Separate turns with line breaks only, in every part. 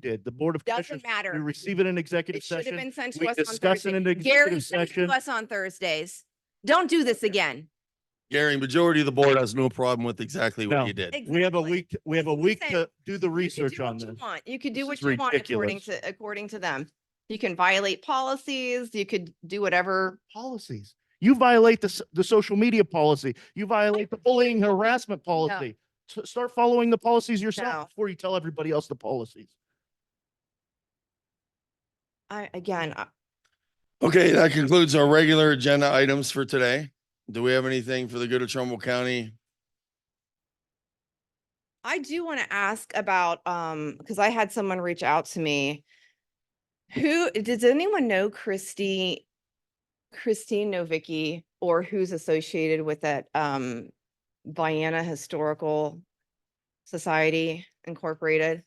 did. The Board of Commissioners,
Doesn't
we
matter.
receive it in executive
It should have
session.
been sent
We
to us on
discuss it in
Thursday.
the
Gary
executive
sent it
session.
to us on Thursdays. Don't do this again.
Gary, majority of the board has no problem with exactly
No.
what you did.
We have a week, to- we have a week
Listen,
to do the
You could
research
do
on
what you
this.
want. You could
This
do
is
what you want according
ridiculous.
to, according to them. You can violate policies, you could do whatever.
Policies. You violate the, s- the social media policy. You violate the bullying harassment policy. S- Start following the policies
No.
yourself before you tell everybody else the policies.
I, again, I-
Okay, that concludes our regular agenda items for today. Do we have anything for the good of Trumbull County?
I do want to ask about, um, because I had someone reach out to me. Who, does anyone know Christy, Christine Novicki, or who's associated with that, um, Vienna Historical Society Incorporated?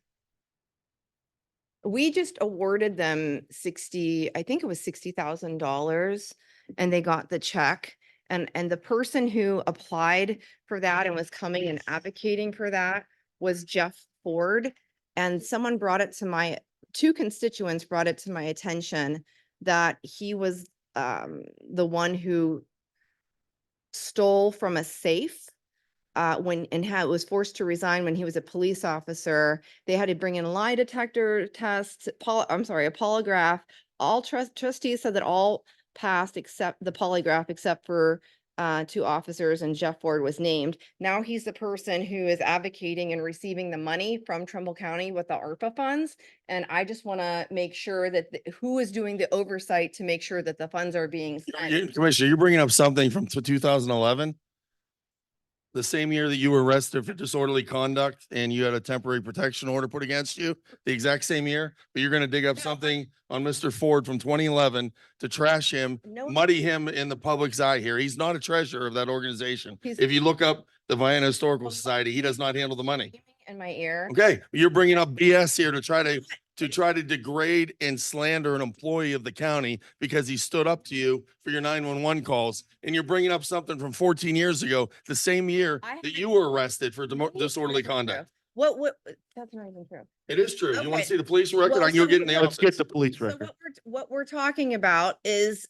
We just awarded them sixty, I think it was sixty thousand dollars, and they got the check. And, and the person who applied for that and was coming and advocating for that was Jeff Ford. And someone brought it to my, two constituents brought it to my attention that he was um, the one who stole from a safe uh, when, and how was forced to resign when he was a police officer. They had to bring in lie detector tests, pol, I'm sorry, a polygraph. All trust trustees said that all passed except the polygraph, except for uh, two officers and Jeff Ford was named. Now he's the person who is advocating and receiving the money from Trumbull County with the ARPA funds. And I just want to make sure that th- who is doing the oversight to make sure that the funds are being
You-
spent.
Commissioner, you're bringing up something from two thousand eleven? The same year that you were arrested for disorderly conduct and you had a temporary protection order put against you, the exact same year, but you're gonna dig up
No, I-
something on Mr. Ford from twenty eleven to trash him,
No,
muddy him in the public's eye here. He's not a treasurer of that organization.
He's-
If you look up the Vienna Historical
Well,
Society, he does not handle the money.
screaming in my ear.
Okay, you're bringing up BS here to try to, to try to degrade and slander an employee of the county because he stood up to you for your nine-one-one calls. And you're bringing up something from fourteen years ago, the same year
I
that
haven't-
you were arrested for demo-
What is
disorderly
even true?
conduct.
What, what, that's not even true.
It is true. You want
Okay.
to see the police record?
Well,
I can go
so-
get in the
Let's get
office.
the police
So
record.
what we're, what we're talking about is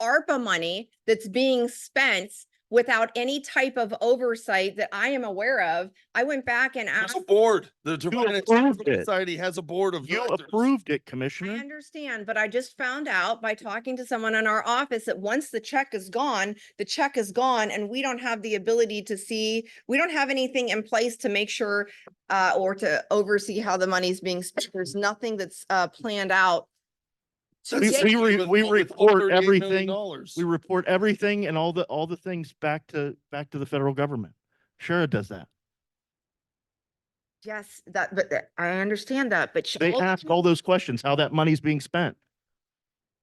ARPA money that's being spent without any type of oversight that I am aware of. I went back and
There's
asked,
a board. The Trevina
approved it.
Society has a board of
You
directors.
approved it,
I
Commissioner.
understand, but I just found out by talking to someone in our office that once the check is gone, the check is gone and we don't have the ability to see, we don't have anything in place to make sure uh, or to oversee how the money's being spent. There's nothing that's uh, planned out.
We- we
That's the
re-
same
we
with- with
report
$38 million
everything.
dollars.
We report everything and all the, all the things back to, back to the federal government. Sure, it does that.
Yes, that, but that- I understand that, but. sh-
They ask all those questions, how that money's being spent.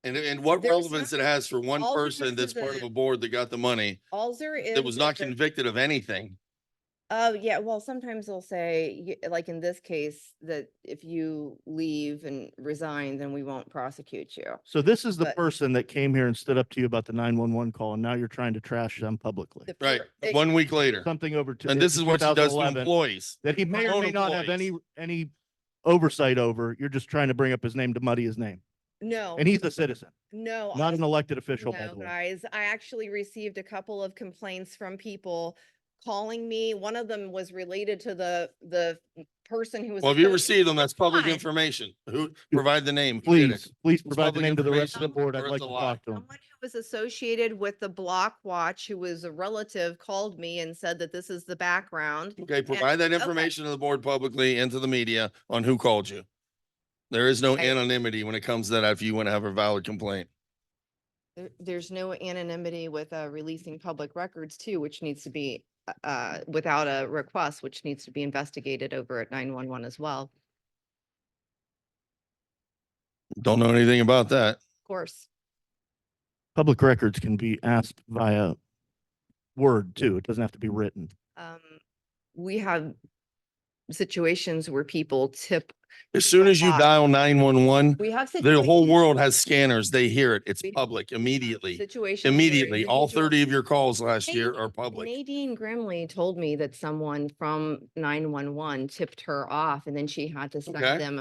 And, and what
There's
relevance it
nothing.
has for one
All because
person
of
that's part of
the-
a board that got the money
All there is.
that was
is
not
the-
convicted of anything.
Oh, yeah, well, sometimes they'll say, y- like in this case, that if you leave and resign, then we won't prosecute you.
So this is the
But-
person that came here and stood up to you about the nine-one-one call and now you're trying to trash them publicly.
The
Right,
per- it-
one week later.
Something over to.
And this is what she does to
2011
employees.
That he may
her
or
own
may not have any,
employees.
any oversight over. You're just trying to bring up his name to muddy his name.
No,
And he's a citizen,
no.
not
I-
an elected official, by
No,
the way.
guys, I actually received a couple of complaints from people calling me. One of them was related to the, the person who was.
Well, if you
associated-
receive them, that's public
Fine.
information. Who, provide the name. who did it.
Please, please
It's
provide the
public
name to the rest of the
information,
board.
or
I'd
it's
like
a
to
lie.
talk to him.
Someone who was associated with the Block Watch, who was a relative, called me and said that this is the background.
Okay, provide that
okay.
information to the board publicly and to the media on who called you. There is no
Okay.
anonymity when it comes to that if you want to have a valid complaint.
There- There's no anonymity with uh, releasing public records too, which needs to be, uh, uh, without a request, which needs to be investigated over at 911 as well,
Don't know anything about that.
of course.
Public records can be asked via word too. It doesn't have to be written.
Um, We have situations where people tip,
As soon as you
lot.
dial nine-one-one,
we have.
the whole
situations-
world has scanners. They hear it. It's
We-
public
we have
immediately.
situations where
Immediately, all
individuals-
thirty of your calls last
Hey,
year are public.
Nadine Grimley told me that someone from nine one one tipped her off and then she had to send
Okay.
them